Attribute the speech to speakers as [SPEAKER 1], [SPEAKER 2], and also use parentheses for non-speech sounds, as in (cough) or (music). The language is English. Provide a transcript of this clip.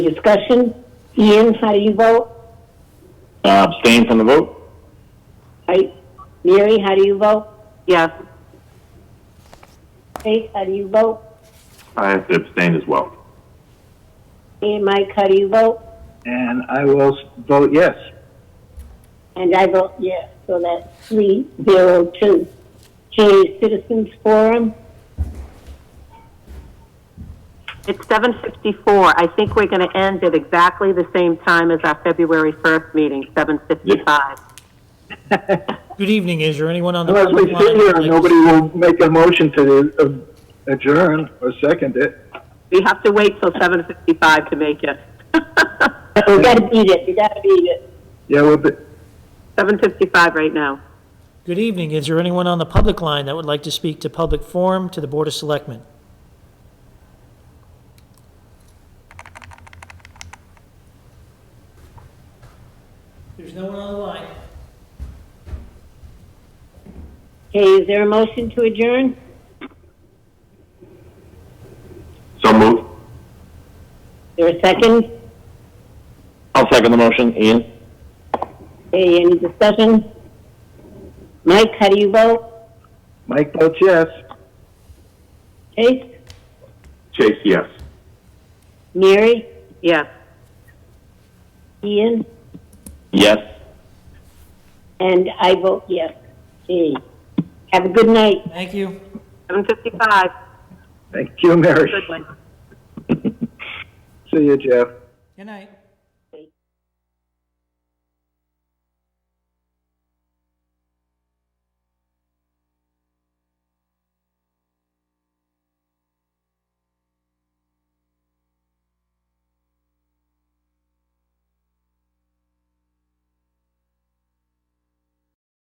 [SPEAKER 1] Discussion? Ian, how do you vote?
[SPEAKER 2] Uh, abstain from the vote?
[SPEAKER 1] I, Mary, how do you vote?
[SPEAKER 3] Yes.
[SPEAKER 1] Faith, how do you vote?
[SPEAKER 2] I have to abstain as well.
[SPEAKER 1] And Mike, how do you vote?
[SPEAKER 4] And I will s- vote yes.
[SPEAKER 1] And I vote yes, so that's three zero two. G is Citizens Forum,
[SPEAKER 3] It's seven fifty-four. I think we're gonna end at exactly the same time as our February first meeting, seven fifty-five.
[SPEAKER 5] Good evening. Is there anyone on the
[SPEAKER 4] Unless we
[SPEAKER 5] public
[SPEAKER 4] sit
[SPEAKER 5] line?
[SPEAKER 4] here
[SPEAKER 5] who'd
[SPEAKER 4] and
[SPEAKER 5] like to-
[SPEAKER 4] nobody will make a motion to uh, adjourn or second it.
[SPEAKER 3] We have to wait till seven fifty-five to make it. (laughs)
[SPEAKER 1] we gotta beat it, you gotta beat it.
[SPEAKER 4] Yeah, we'll be,
[SPEAKER 3] Seven fifty-five right now.
[SPEAKER 5] Good evening. Is there anyone on the public line that would like to speak to public forum to the Board of Selectmen? There's no one on the line.
[SPEAKER 1] Okay, is there a motion to adjourn?
[SPEAKER 2] So moved.
[SPEAKER 1] Is There a second?
[SPEAKER 2] I'll second the motion. Ian?
[SPEAKER 1] Okay, any discussion? Mike, how do you vote?
[SPEAKER 4] Mike votes yes.
[SPEAKER 1] Faith,
[SPEAKER 2] Chase, yes.
[SPEAKER 1] Mary,
[SPEAKER 3] Yes.
[SPEAKER 1] Ian,
[SPEAKER 2] Yes.
[SPEAKER 1] and I vote yes. Okay, have a good night.
[SPEAKER 5] Thank you.
[SPEAKER 3] Seven fifty-five.
[SPEAKER 4] Thank you, Mary.
[SPEAKER 3] Good one.
[SPEAKER 4] (laughs) See you, Jeff.
[SPEAKER 5] Good night.